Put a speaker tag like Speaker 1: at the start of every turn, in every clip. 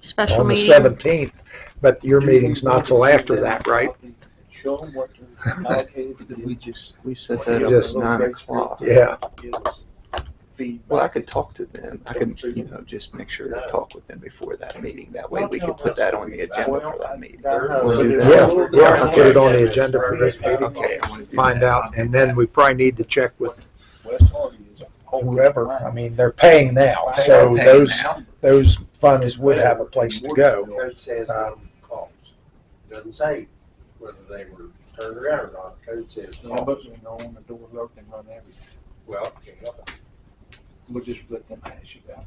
Speaker 1: special
Speaker 2: on the
Speaker 1: meeting.
Speaker 2: seventeenth, but your meeting's not till after that, right?
Speaker 3: Show them what you allocated to
Speaker 4: We
Speaker 3: do.
Speaker 4: just, we set
Speaker 3: Yeah,
Speaker 4: that up
Speaker 2: just
Speaker 4: at nine o'clock.
Speaker 2: Yeah,
Speaker 3: Is
Speaker 4: Well, I
Speaker 3: Feedback.
Speaker 4: could talk to them. I could, you know, just make sure to talk with them before that meeting. That way we could put that on the agenda for that meeting.
Speaker 3: Well,
Speaker 4: do
Speaker 2: yeah,
Speaker 4: that.
Speaker 2: yeah, put it on the agenda for this meeting,
Speaker 4: Okay, I want to do
Speaker 2: find
Speaker 4: that.
Speaker 2: out, and then we probably need to check with
Speaker 3: West Hardy is all-
Speaker 2: whoever. I mean, they're paying now, so
Speaker 4: Okay,
Speaker 2: those,
Speaker 4: now,
Speaker 2: those funds would have a place to go. Um,
Speaker 5: Code says minimum cost. Doesn't say whether they were turned around or not. Code says,
Speaker 3: No, but we know when the door locked and run everything.
Speaker 5: well,
Speaker 3: We'll just let them hash it out.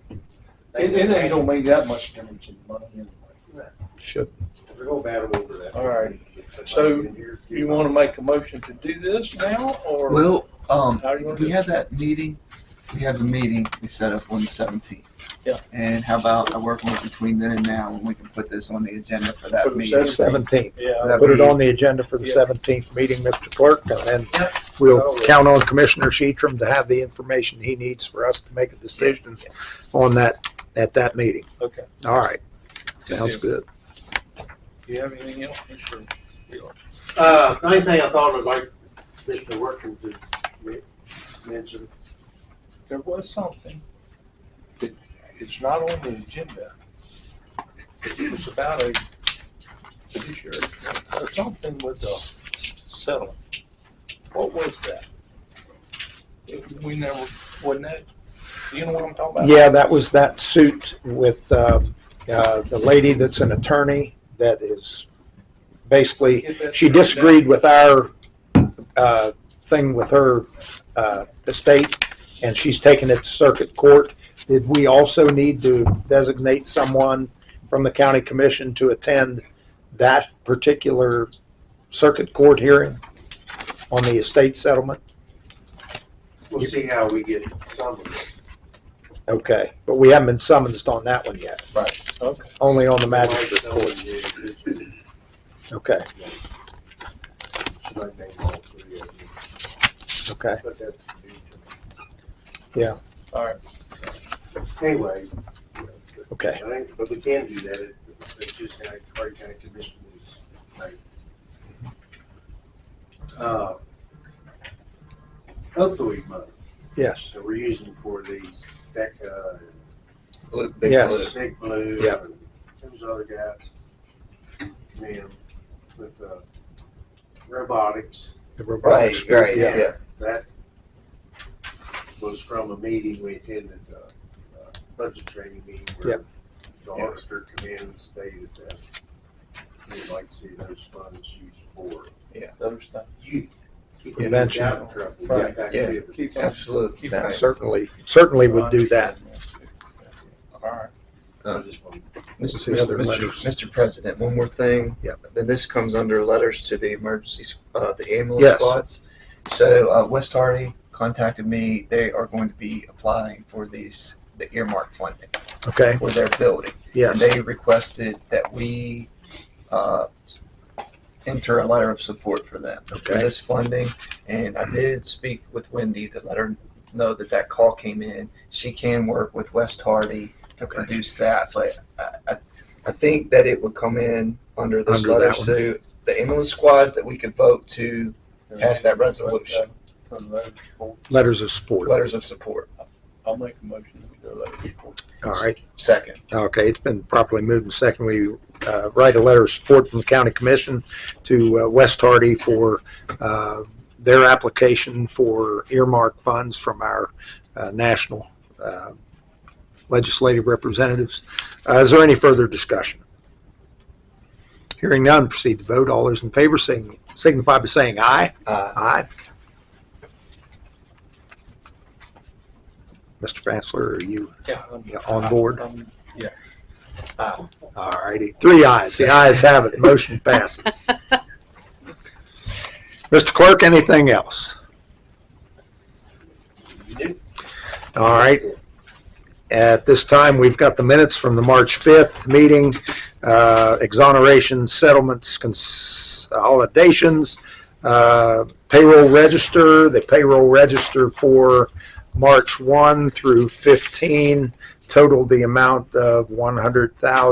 Speaker 5: they-
Speaker 3: It, it ain't gonna make that much difference in money anyway.
Speaker 2: Should,
Speaker 5: We're gonna battle over that.
Speaker 3: All right.
Speaker 5: If somebody
Speaker 3: So,
Speaker 5: in here-
Speaker 3: You wanna make a motion to do this now, or?
Speaker 4: Well, um,
Speaker 3: How do you want to
Speaker 4: we
Speaker 3: do
Speaker 4: have that meeting, we have the meeting we set up on the seventeenth.
Speaker 3: Yeah.
Speaker 4: And how about I work on it between then and now, and we can put this on the agenda for
Speaker 3: For
Speaker 4: that
Speaker 3: the
Speaker 4: meeting?
Speaker 2: seventeenth,
Speaker 3: Yeah,
Speaker 4: That
Speaker 2: put it
Speaker 4: we-
Speaker 2: on the agenda for the
Speaker 3: Yeah.
Speaker 2: seventeenth meeting, Mr. Clerk, and then we'll count on Commissioner Sheetram to have the information he needs for us to make a decision on that, at that meeting.
Speaker 3: okay.
Speaker 2: All right, sounds good.
Speaker 3: Do you have anything else, Mr. Wheeler?
Speaker 5: Uh, the only thing I thought I'd like Mr. Workman to me- mention,
Speaker 3: There was something that is not on the agenda. It was about a fiduciary, or something with a settlement. What was that? It- We never, wasn't that, you know what I'm talking about?
Speaker 2: Yeah, that was that suit with um, uh, the lady that's an attorney that is basically,
Speaker 3: Get that
Speaker 2: she
Speaker 3: straightened out.
Speaker 2: disagreed with our uh, thing with her uh, estate, and she's taken it to circuit court. Did we also need to designate someone from the county commission to attend that particular circuit court hearing on the estate settlement?
Speaker 5: we'll see how we get some of it.
Speaker 2: Okay, but we haven't been summoned on that one yet,
Speaker 3: Okay.
Speaker 2: only on the magistrate court. Okay,
Speaker 5: She might name all three of you,
Speaker 2: okay.
Speaker 5: but that's.
Speaker 3: All right,
Speaker 5: Anyway.
Speaker 2: Okay.
Speaker 5: I think, but we can do that, It- it's just like Hardin County Commission is, like. uh, Opioid money
Speaker 2: Yes,
Speaker 5: that we're using for these, DECA,
Speaker 4: Big
Speaker 2: Yes.
Speaker 4: Blue.
Speaker 5: and Big Blue.
Speaker 2: Yep.
Speaker 5: and Those other guys, man, with, uh, robotics,
Speaker 2: the
Speaker 4: Right,
Speaker 2: robotics.
Speaker 4: right,
Speaker 2: Yeah.
Speaker 4: yeah.
Speaker 5: that was from a meeting we attended, uh, uh, budget training meeting where the auditor come in and stated that we'd like to see those funds used for
Speaker 3: those things.
Speaker 5: youth. Keep
Speaker 2: Prevention.
Speaker 5: them out of trouble,
Speaker 3: Right.
Speaker 5: youth activity.
Speaker 3: Keep on.
Speaker 4: Absolutely.
Speaker 2: That
Speaker 4: Right.
Speaker 2: Certainly, certainly would do that.
Speaker 3: All right.
Speaker 5: I just want-
Speaker 2: What's the other
Speaker 4: Mr.
Speaker 2: letters?
Speaker 4: Mr. President, one more thing.
Speaker 2: Yep.
Speaker 4: Then this comes under letters to the emergency, s- uh, the ambulance
Speaker 2: Yes.
Speaker 4: squads. So, uh, West Hardy contacted me. They are going to be applying for these, the earmark funding
Speaker 2: Okay,
Speaker 4: for their building. And
Speaker 2: yes,
Speaker 4: they requested that we, uh, enter a letter of support for them, for
Speaker 2: Okay.
Speaker 4: this funding. And I did speak with Wendy to let her know that that call came in. She can work with West Hardy to
Speaker 2: Okay.
Speaker 4: produce that, but I, I, I think that it would come in under this
Speaker 2: Under
Speaker 4: letter
Speaker 2: that one.
Speaker 4: to the ambulance squads that we could vote to pass that resolution,
Speaker 3: From those people,
Speaker 2: letters of support. All
Speaker 4: letters of support.
Speaker 3: I'll make a motion that we do those people.
Speaker 2: right,
Speaker 4: Second,
Speaker 2: okay, it's been properly moved and second. We uh, write a letter of support from the county commission to uh, West Hardy for uh, their application for earmark funds from our uh, national uh, legislative representatives. Uh, Is there any further discussion? Hearing none, proceed to vote. All those in favor sign- signify by saying aye.
Speaker 4: uh,
Speaker 2: Aye. Mr. Fassler, are you
Speaker 3: Yeah.
Speaker 2: yeah, on board?
Speaker 3: Um,
Speaker 2: All righty, three ayes, the ayes have it, motion passes. Mr. Clerk, anything else? All right, at this time, we've got the minutes from the March 5th meeting, uh, exoneration, settlements, consolidations, uh, payroll register, the payroll register for March 1 through 15 totaled the amount of 100,000.